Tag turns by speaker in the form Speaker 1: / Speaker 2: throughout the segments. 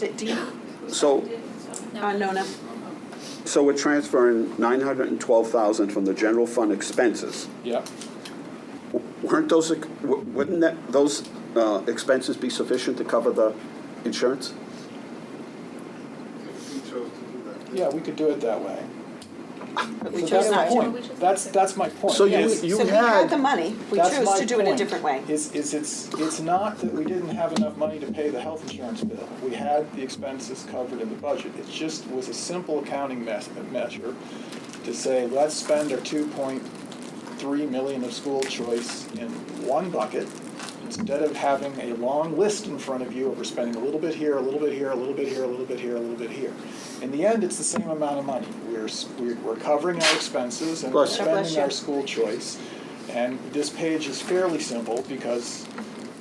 Speaker 1: D- Do you,
Speaker 2: So,
Speaker 1: uh, Nona?
Speaker 2: so we're transferring 912,000 from the general fund expenses.
Speaker 3: Yeah,
Speaker 2: W- Weren't those, ex- w- wouldn't that, those uh, expenses be sufficient to cover the insurance?
Speaker 4: If we chose to do that.
Speaker 3: yeah, we could do it that way.
Speaker 1: We
Speaker 3: So
Speaker 1: chose
Speaker 3: that's
Speaker 1: not
Speaker 3: my
Speaker 1: to.
Speaker 3: point. That's, that's my point.
Speaker 2: So you-
Speaker 3: Yes.
Speaker 1: So we had the money, we
Speaker 3: That's
Speaker 1: chose
Speaker 3: my
Speaker 1: to do it a
Speaker 3: point,
Speaker 1: different way.
Speaker 3: Is, is it's, it's not that we didn't have enough money to pay the health insurance bill. We had the expenses covered in the budget. It just was a simple accounting mes- measure to say, let's spend our two point three million of school choice in one bucket instead of having a long list in front of you of we're spending a little bit here, a little bit here, a little bit here, a little bit here, a little bit here. In the end, it's the same amount of money. We're, s- we're we're covering our expenses and we're
Speaker 2: Bless you.
Speaker 1: God bless
Speaker 3: spending our
Speaker 1: you.
Speaker 3: school choice. And this page is fairly simple because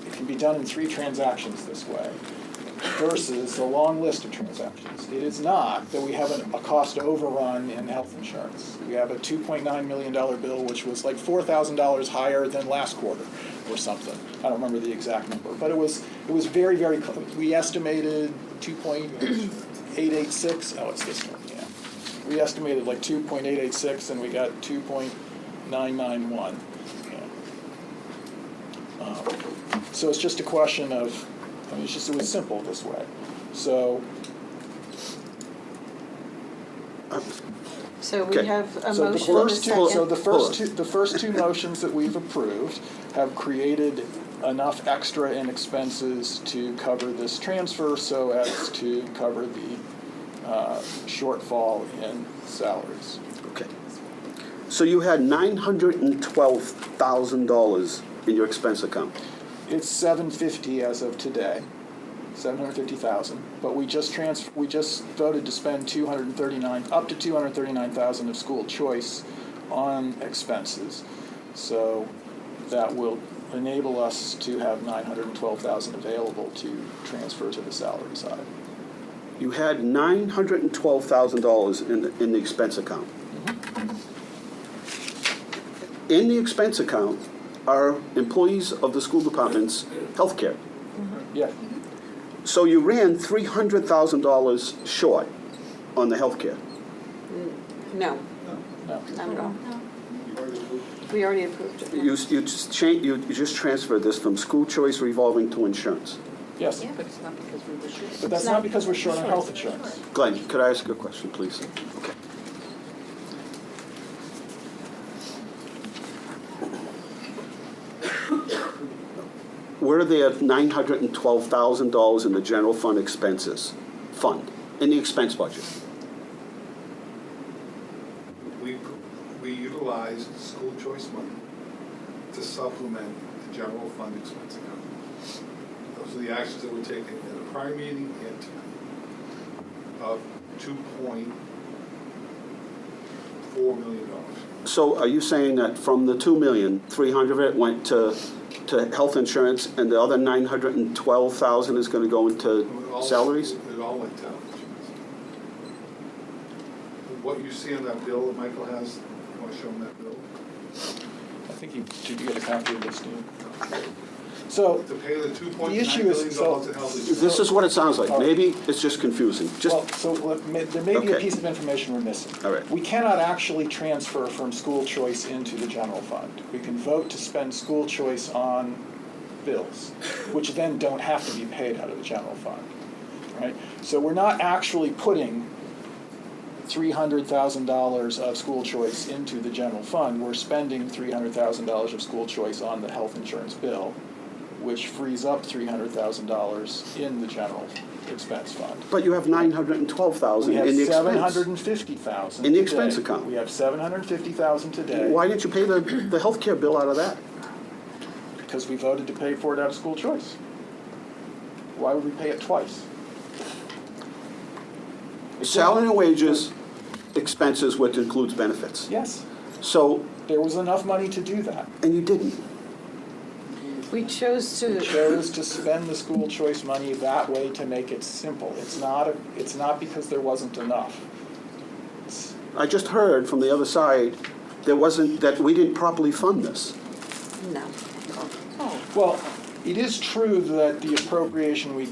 Speaker 3: it can be done in three transactions this way versus a long list of transactions. It is not that we have an- a cost overrun in health insurance. We have a $2.9 million bill, which was like $4,000 higher than last quarter or something. I don't remember the exact number, but it was, it was very, very, cl- we estimated 2.886, oh, it's this one, yeah. We estimated like 2.886 and we got 2.991. Yeah. Um, so it's just a question of, I mean, it's just, it was simple this way. So,
Speaker 1: So we
Speaker 2: Okay.
Speaker 1: have a
Speaker 3: so the
Speaker 1: motion and a
Speaker 3: first two, so
Speaker 1: second.
Speaker 3: the first
Speaker 2: Hold
Speaker 3: two,
Speaker 2: on.
Speaker 3: the first two motions that we've approved have created enough extra in expenses to cover this transfer so as to cover the uh, shortfall in salaries.
Speaker 2: Okay. So you had $912,000 in your expense account.
Speaker 3: It's seven fifty as of today, seven hundred fifty thousand. But we just trans, we just voted to spend two hundred and thirty-nine, up to two hundred thirty-nine thousand of school choice on expenses. So that will enable us to have nine hundred and twelve thousand available to transfer to the salary side.
Speaker 2: You had $912,000 in, the- in the expense account. In the expense account are employees of the school department's healthcare.
Speaker 3: Yeah,
Speaker 2: So you ran $300,000 short on the healthcare.
Speaker 1: No,
Speaker 3: no,
Speaker 1: not at all.
Speaker 4: You already moved.
Speaker 1: We already approved it.
Speaker 2: You, you just change, you you just transferred this from school choice revolving to insurance.
Speaker 3: yes.
Speaker 5: but it's not because we were short.
Speaker 3: But that's not because we're short on health insurance.
Speaker 2: Glenn, could I ask you a question, please? Okay. Were there nine hundred and twelve thousand dollars in the general fund expenses, fund, in the expense budget?
Speaker 4: We, we utilized school choice money to supplement the general fund expense account. Those are the actions that were taken at the prior meeting and tonight of two point four million dollars.
Speaker 2: So are you saying that from the two million, three hundred of it went to, to health insurance and the other nine hundred and twelve thousand is gonna go
Speaker 4: It
Speaker 2: into
Speaker 4: all-
Speaker 2: salaries?
Speaker 4: It all went down. What you see on that bill that Michael has, you want to show him that bill?
Speaker 3: I think you, did you get a copy of this, Dean? So,
Speaker 4: To pay the two point nine
Speaker 3: The issue is-
Speaker 4: million dollars in health insurance.
Speaker 2: This is what it sounds like. Maybe it's just confusing. Just,
Speaker 3: Well, so let- may- there may be a
Speaker 2: Okay.
Speaker 3: piece of information we're missing.
Speaker 2: All right.
Speaker 3: We cannot actually transfer from school choice into the general fund. We can vote to spend school choice on bills, which then don't have to be paid out of the general fund, right? So we're not actually putting three hundred thousand dollars of school choice into the general fund. We're spending three hundred thousand dollars of school choice on the health insurance bill, which frees up three hundred thousand dollars in the general expense fund.
Speaker 2: But you have nine hundred and twelve thousand
Speaker 3: We have
Speaker 2: in the
Speaker 3: seven
Speaker 2: expense.
Speaker 3: hundred and fifty thousand.
Speaker 2: In the expense account.
Speaker 3: We have seven hundred and fifty thousand today.
Speaker 2: Why didn't you pay the, the healthcare bill out of that?
Speaker 3: Because we voted to pay for it out of school choice. Why would we pay it twice?
Speaker 2: Salary and wages, expenses, which includes benefits.
Speaker 3: Yes,
Speaker 2: So,
Speaker 3: there was enough money to do that.
Speaker 2: and you didn't.
Speaker 1: We chose
Speaker 3: We
Speaker 1: to,
Speaker 3: chose to spend the school choice money that way to make it simple. It's not, a- it's not because there wasn't enough. It's-
Speaker 2: I just heard from the other side, there wasn't, that we didn't properly fund this.
Speaker 1: no.
Speaker 3: Well, it is true that the appropriation we